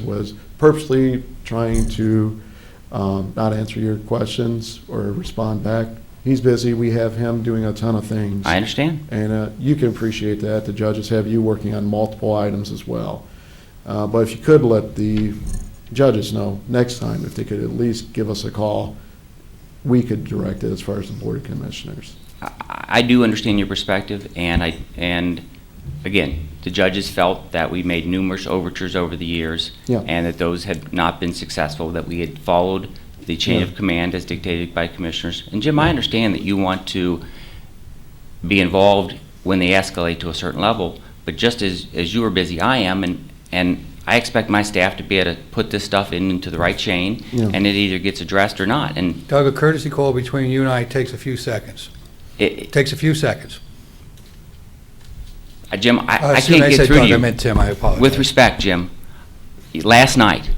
was purposely trying to um, not answer your questions or respond back. He's busy. We have him doing a ton of things. I understand. And uh, you can appreciate that. The judges have you working on multiple items as well. Uh, But if you could let the judges know next time, if they could at least give us a call, we could direct it as far as the Board of Commissioners. I, I do understand your perspective, and I, and again, the judges felt that we made numerous overtures over the years, Yeah. and that those had not been successful, that we had followed the chain of command as dictated by commissioners. And Jim, I understand that you want to be involved when they escalate to a certain level, but just as, as you are busy, I am, and, and I expect my staff to be able to put this stuff in, into the right chain, Yeah. and it either gets addressed or not, and Doug, a courtesy call between you and I takes a few seconds. it, Takes a few seconds. Uh, Jim, I, Uh, I excuse me, can't get said through to Doug, I you. meant Tim, I With apologize. respect, Jim, last night,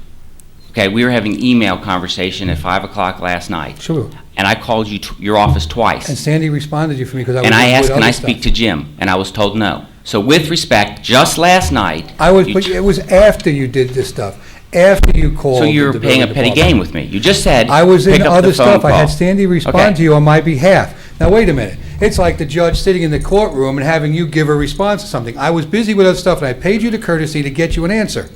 okay, we were having email conversation at five o'clock last night, Sure. and I called you, tw- your office And twice, Sandy responded to you for me because I was and I with asked, can I other stuff. speak to Jim? And I was told no. So with respect, just last night. I was, you but tr- it was after you did this stuff, after you called. So you're the paying a building petty department. game with me. You just said, I was pick in up the other phone stuff. I had call. Sandy Okay. respond to you on my behalf. Now, wait a minute. It's like the judge sitting in the courtroom and having you give a response to something. I was busy with other stuff, and I paid you the courtesy to get you an answer.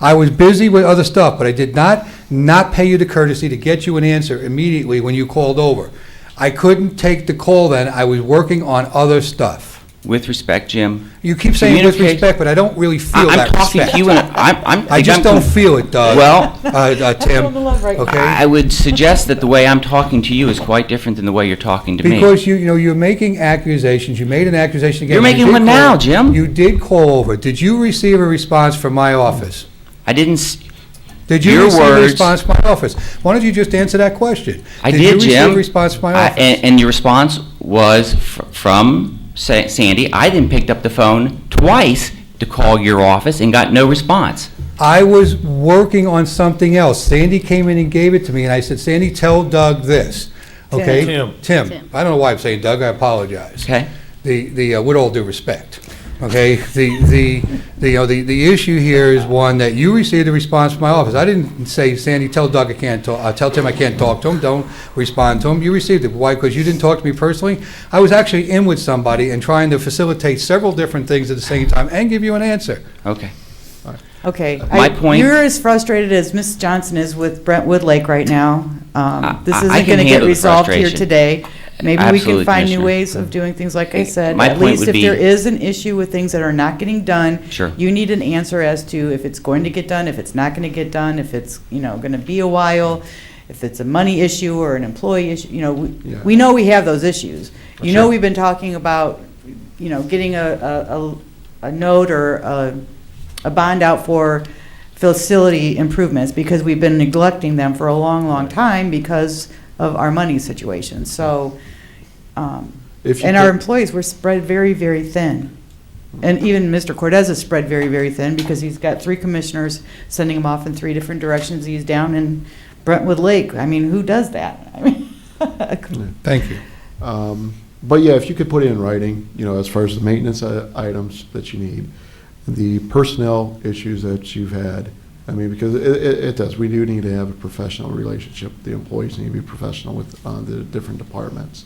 I was busy with other stuff, but I did not not pay you the courtesy to get you an answer immediately when you called over. I couldn't take the call then. I was working on other stuff. With respect, Jim, You keep saying with Communicate- respect, but I don't really I- feel I'm that talking to respect. you, and I'm, I'm. I just I'm don't com- feel it, Doug. Well, Uh, uh, Tim. Okay? I would suggest that the way I'm talking to you is quite different than the way you're talking to me. Because you, you know, you're making accusations, you made an accusation again. You're You making did one now, call- Jim. You did call over. Did you receive a response from my office? I didn't, s- Did you Your receive a words- response from my office? Why don't you just answer that question? I you did, receive a Jim. response from my I- office? And, and your response was fr- from Sa- Sandy, I then picked up the phone twice to call your office and got no response. I was working on something else. Sandy came in and gave it to me, and I said, Sandy, tell Doug this, okay? Tim. Tim. Tim. I don't know why I'm saying Doug, I apologize. Okay. The, the, uh, with all due respect, okay? The, the, the, you know, the, the issue here is one that you received a response from my office. I didn't say, Sandy, tell Doug I can't talk, uh, tell Tim I can't talk to him, don't respond to him. You received it. Why? Because you didn't talk to me personally? I was actually in with somebody and trying to facilitate several different things at the same time and give you an answer. Okay. Okay. My I- point- You're as frustrated as Ms. Johnson is with Brent Woodlake right now. Um, This I- I isn't can going to get handle the resolved here frustration. today. Maybe we Absolutely, can find new Commissioner. ways of doing things, like I Eh, said. my At point least would if be- there is an issue with things that are not getting done. Sure. You need an answer as to if it's going to get done, if it's not going to get done, if it's, you know, going to be a while, if it's a money issue or an employee issue, you know, we Yeah. we know we have those issues. You know, Sure. we've been talking about, you know, getting a, a, a- a note or a, a bond out for facility improvements because we've been neglecting them for a long, long time because of our money situation. So, um, If you and our could- employees were spread very, very thin. And even Mr. Cortez is spread very, very thin because he's got three commissioners sending him off in three different directions. He's down in Brentwood Lake. I mean, who does that? I mean, Thank you. Um, But yeah, if you could put it in writing, you know, as far as the maintenance i- items that you need, the personnel issues that you've had, I mean, because it, it it does, we do need to have a professional relationship. The employees need to be professional with uh, the different departments.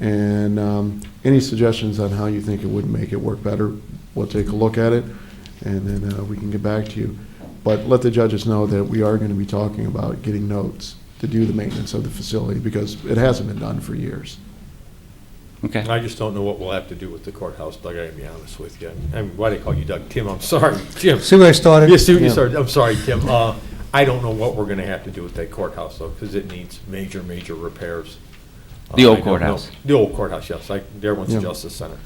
And um, any suggestions on how you think it would make it work better, we'll take a look at it, and then uh, we can get back to you. But let the judges know that we are going to be talking about getting notes to do the maintenance of the facility, because it hasn't been done for years. Okay. I just don't know what we'll have to do with the courthouse, Doug, I gotta be honest with you. I mean, why do they call you Doug? Tim, I'm sorry, Jim. See where I started? Yes, Sue, Yeah. you started, I'm sorry, Tim. Uh, I don't know what we're gonna have to do with that courthouse though, because it needs major, major repairs. Uh, The old I don't know. courthouse. The old courthouse, yes, like, there one's Yeah. the Justice Center.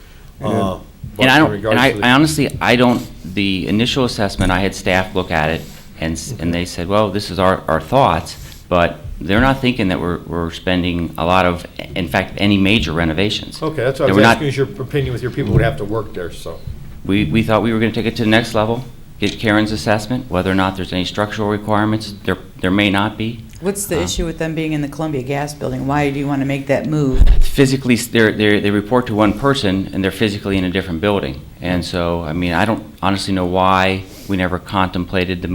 Yeah. Uh, but And I in don't, and regards I to the- I honestly, I don't, the initial assessment, I had staff look at it, and, s- and they said, well, this is our, our thoughts, but they're not thinking that we're, we're spending a lot of, in fact, any major renovations. Okay, that's what That I was we're not- asking, is your opinion with your people would have to work there, so. We, we thought we were going to take it to the next level, get Karen's assessment, whether or not there's any structural requirements. There, there may not be. What's the Uh. issue with them being in the Columbia Gas Building? Why do you want to make that move? Physically, s- they're, they're, they report to one person, and they're physically in a different building. And so, I mean, I don't honestly know why we never contemplated the